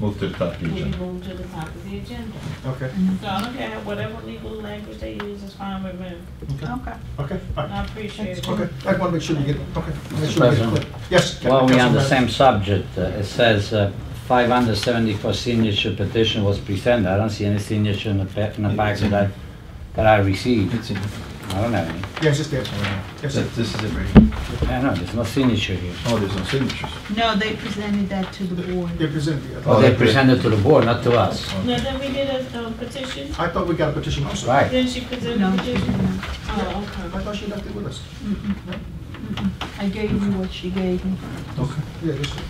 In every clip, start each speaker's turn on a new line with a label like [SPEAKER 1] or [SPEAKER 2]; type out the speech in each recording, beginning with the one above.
[SPEAKER 1] Move to the top of the
[SPEAKER 2] will be
[SPEAKER 1] agenda.
[SPEAKER 2] moved to the top of the agenda.
[SPEAKER 3] Okay,
[SPEAKER 2] So I don't care, whatever legal language they use is fine with me.
[SPEAKER 4] Okay.
[SPEAKER 3] okay, all right.
[SPEAKER 2] I appreciate it.
[SPEAKER 3] Okay, I want to make sure we get, okay. make
[SPEAKER 5] Mr.
[SPEAKER 3] sure we get it
[SPEAKER 5] President.
[SPEAKER 3] clear. Yes.
[SPEAKER 5] While we're on the
[SPEAKER 3] Councilman.
[SPEAKER 5] same subject, uh, it says uh, 574 signature petition was presented. I don't see any signature in the pa- in the back that I, that I received.
[SPEAKER 1] It's in,
[SPEAKER 5] I don't have any.
[SPEAKER 3] Yeah, it's just there. Yes, sir.
[SPEAKER 1] that- this is it.
[SPEAKER 5] I know, there's no signature here.
[SPEAKER 1] Oh, there's no signatures.
[SPEAKER 4] No, they presented that to the
[SPEAKER 3] They
[SPEAKER 4] board.
[SPEAKER 3] presented
[SPEAKER 5] Oh,
[SPEAKER 3] it.
[SPEAKER 5] they presented to the board, not to us.
[SPEAKER 2] Now, then we did a um, petition,
[SPEAKER 3] I thought we got a petition, I'm sorry.
[SPEAKER 5] Right.
[SPEAKER 2] then she presented
[SPEAKER 4] No,
[SPEAKER 2] a
[SPEAKER 4] she
[SPEAKER 2] petition.
[SPEAKER 4] didn't.
[SPEAKER 2] Oh, okay.
[SPEAKER 3] I thought she left it with us.
[SPEAKER 4] I gave you what she gave me.
[SPEAKER 3] Okay. Yeah, yes, sir.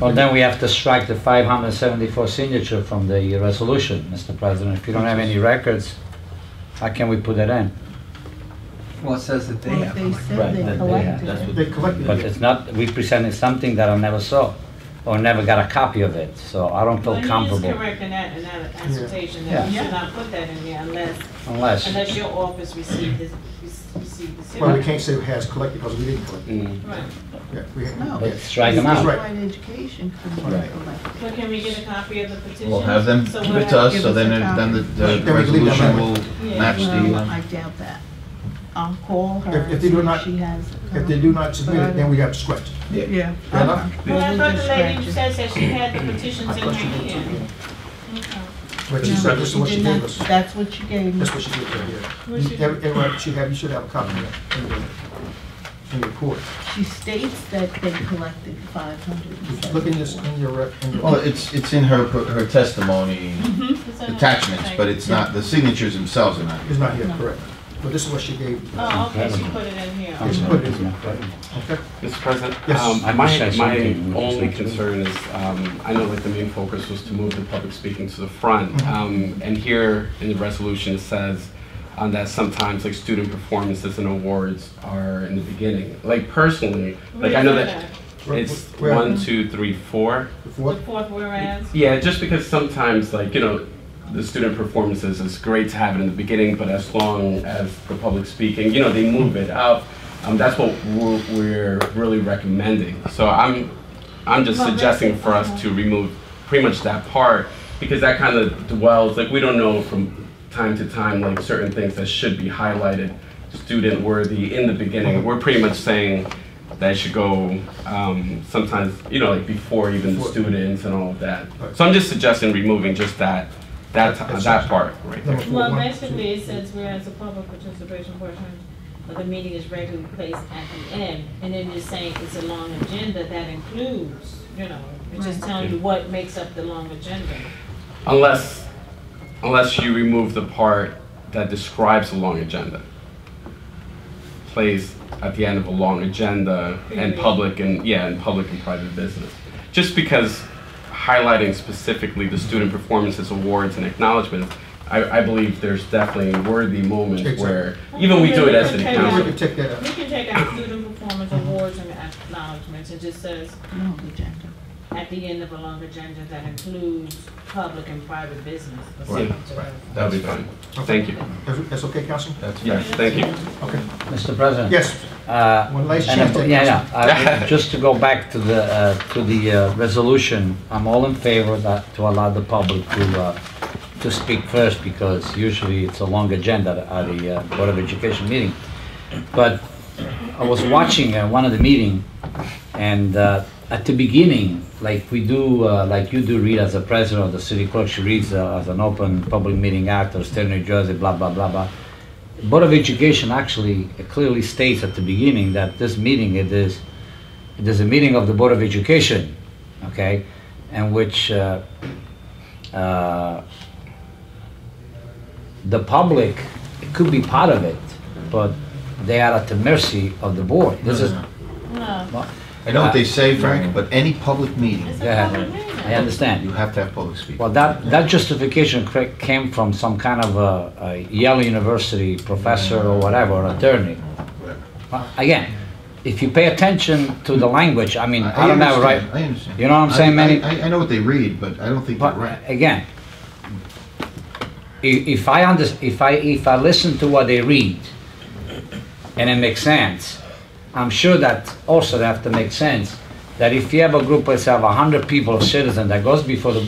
[SPEAKER 5] Well, then we have to strike the 574 signature from the resolution, Mr. President. If you don't have any records, how can we put that in?
[SPEAKER 6] Well, it says that they
[SPEAKER 4] Well,
[SPEAKER 6] have.
[SPEAKER 4] they
[SPEAKER 5] Right,
[SPEAKER 4] said
[SPEAKER 5] that
[SPEAKER 4] they
[SPEAKER 5] they
[SPEAKER 4] collected
[SPEAKER 1] That's
[SPEAKER 4] it.
[SPEAKER 1] what-
[SPEAKER 3] They collected
[SPEAKER 5] But
[SPEAKER 3] it.
[SPEAKER 5] it's not, we presented something that I never saw or never got a copy of it, so I don't feel
[SPEAKER 2] Well, he is
[SPEAKER 5] comfortable
[SPEAKER 2] correct in that, in that assertion, that we
[SPEAKER 4] Yeah.
[SPEAKER 2] should not put that in there unless,
[SPEAKER 5] unless.
[SPEAKER 2] unless your office received this, received this.
[SPEAKER 3] Well, we can't say has collected because we didn't collect it.
[SPEAKER 5] Mm.
[SPEAKER 2] Right,
[SPEAKER 3] Yeah, we had.
[SPEAKER 4] No.
[SPEAKER 3] yeah.
[SPEAKER 5] But strike them
[SPEAKER 3] That's
[SPEAKER 5] out.
[SPEAKER 3] right.
[SPEAKER 4] Right, education committee
[SPEAKER 5] Right.
[SPEAKER 4] collected.
[SPEAKER 2] but can we get a copy of the petition?
[SPEAKER 1] We'll have them
[SPEAKER 2] So
[SPEAKER 1] give
[SPEAKER 2] we'll
[SPEAKER 1] it to
[SPEAKER 2] have-
[SPEAKER 1] us, so then, it- then the-
[SPEAKER 3] Then
[SPEAKER 1] the
[SPEAKER 3] we leave them
[SPEAKER 1] resolution
[SPEAKER 3] out.
[SPEAKER 1] will
[SPEAKER 2] Yeah.
[SPEAKER 1] match the,
[SPEAKER 4] Well,
[SPEAKER 1] uh,
[SPEAKER 4] I doubt that. I'll call her.
[SPEAKER 3] If- if
[SPEAKER 4] and
[SPEAKER 3] they do
[SPEAKER 4] see
[SPEAKER 3] not-
[SPEAKER 4] She has. it.
[SPEAKER 3] If they do not submit it, then we have to scratch it.
[SPEAKER 1] yeah.
[SPEAKER 4] Yeah.
[SPEAKER 3] Fair enough?
[SPEAKER 2] Well, I thought
[SPEAKER 4] We'll
[SPEAKER 2] the lady
[SPEAKER 4] dispatch it.
[SPEAKER 2] said that she had the petitions
[SPEAKER 3] I
[SPEAKER 2] in her
[SPEAKER 3] thought she did too,
[SPEAKER 2] hand.
[SPEAKER 3] yeah.
[SPEAKER 2] Okay.
[SPEAKER 3] But she
[SPEAKER 4] No,
[SPEAKER 3] said this is what she
[SPEAKER 4] did
[SPEAKER 3] gave
[SPEAKER 4] not-
[SPEAKER 3] us.
[SPEAKER 4] That's what she gave me.
[SPEAKER 3] That's what she did right here.
[SPEAKER 2] What she-
[SPEAKER 3] Every- Everyone should have, you should have a copy of that in the, in your court.
[SPEAKER 4] She states that they collected five hundred and seventy.
[SPEAKER 3] Look in this, in your, rec- in your.
[SPEAKER 1] Well, it's, it's in her, her testimony
[SPEAKER 2] It's on her
[SPEAKER 1] attachments,
[SPEAKER 2] website.
[SPEAKER 1] but it's not, the signatures themselves are not.
[SPEAKER 3] It's not here, correct. But this is what she gave.
[SPEAKER 2] Oh, okay, she put it in here.
[SPEAKER 3] Yes, put it in. Okay.
[SPEAKER 7] Mr. President?
[SPEAKER 3] Yes.
[SPEAKER 7] um,
[SPEAKER 5] I wish I
[SPEAKER 7] My,
[SPEAKER 5] saw
[SPEAKER 7] my
[SPEAKER 5] something.
[SPEAKER 7] only concern is, um, I know that the main focus was to move the public speaking to the front.
[SPEAKER 3] Mm-hmm.
[SPEAKER 7] Um, and here in the resolution, it says, um, that sometimes like student performances and awards are in the beginning. Like personally, like I know
[SPEAKER 2] Where's
[SPEAKER 7] that
[SPEAKER 2] at?
[SPEAKER 7] it's
[SPEAKER 3] Where-
[SPEAKER 7] one, two, three, four.
[SPEAKER 3] The
[SPEAKER 2] The
[SPEAKER 3] fourth?
[SPEAKER 2] fourth whereas?
[SPEAKER 7] Yeah, just because sometimes, like, you know, the student performances, it's great to have it in the beginning, but as long as the public speaking, you know, they move it up, um, that's what we're, we're really recommending. So I'm, I'm just
[SPEAKER 2] Well,
[SPEAKER 7] suggesting
[SPEAKER 2] that's-
[SPEAKER 7] for us to remove pretty much that part, because that kind of dwells, like, we don't know from time to time, like, certain things that should be highlighted, student worthy in the beginning. We're pretty much saying that it should go, um, sometimes, you know, like, before even the
[SPEAKER 3] Before.
[SPEAKER 7] students and all of that. So I'm just suggesting removing just that, that, ti- that part right there.
[SPEAKER 3] Number four,
[SPEAKER 2] Well,
[SPEAKER 3] one,
[SPEAKER 2] basically, it says whereas the public participation portion of the meeting is regularly placed at the end, and then you're saying it's a long agenda that includes, you know, it's just telling you what makes up the long agenda.
[SPEAKER 7] Unless, unless you remove the part that describes a long agenda. Plays at the end of a long agenda and
[SPEAKER 2] Period.
[SPEAKER 7] public and, yeah, and public and private business. Just because highlighting specifically the student performances, awards and acknowledgements, I, I believe there's definitely worthy moments where, even we do it as an
[SPEAKER 2] Exactly.
[SPEAKER 3] two. We
[SPEAKER 7] council.
[SPEAKER 3] can take that
[SPEAKER 2] We
[SPEAKER 3] out.
[SPEAKER 2] can take out student performance awards and acknowledgements, it just says
[SPEAKER 4] No, the agenda.
[SPEAKER 2] at the end of a long agenda that includes public and private business. or
[SPEAKER 7] Right,
[SPEAKER 2] something to that effect.
[SPEAKER 7] That'd be fine. Thank you.
[SPEAKER 3] That's- That's okay, Councilman?
[SPEAKER 1] That's right.
[SPEAKER 7] Yes, thank you.
[SPEAKER 3] Okay.
[SPEAKER 5] Mr. President?
[SPEAKER 3] Yes,
[SPEAKER 5] Uh,
[SPEAKER 3] One last
[SPEAKER 5] and-
[SPEAKER 3] chance.
[SPEAKER 5] Yeah, yeah. Uh, Just to go back to the, uh, to the uh, resolution, I'm all in favor that, to allow the public to, uh, to speak first because usually it's a long agenda at the uh, Board of Education meeting. But I was watching uh, one of the meeting and uh, at the beginning, like we do, uh, like you do read as a president of the city clerk, she reads uh, as an open public meeting act of state of New Jersey, blah, blah, blah, blah. Board of Education actually clearly states at the beginning that this meeting it is, it is a meeting of the Board of Education, okay? And which, uh, uh, the public could be part of it, but they are at the mercy of the board. This is,
[SPEAKER 2] No,
[SPEAKER 1] I know what they say, Frank, but any public meeting,
[SPEAKER 2] it's a
[SPEAKER 5] Yeah.
[SPEAKER 2] public meeting.
[SPEAKER 5] I understand.
[SPEAKER 1] you have to have public speaking.
[SPEAKER 5] Well, that, that justification cra- came from some kind of a, a Yale University professor or whatever, attorney. Well, Again, if you pay attention to the language, I mean, I, don't know, right?
[SPEAKER 1] understand, I understand.
[SPEAKER 5] You know what I'm
[SPEAKER 1] I-
[SPEAKER 5] saying, Manny?
[SPEAKER 1] I, I- I know what they read, but I don't think they're
[SPEAKER 5] But
[SPEAKER 1] right.
[SPEAKER 5] again, i- if I under, if I if I listen to what they read, and it makes sense, I'm sure that also they have to make sense that if you have a group, let's have 100 people, citizens, that goes before the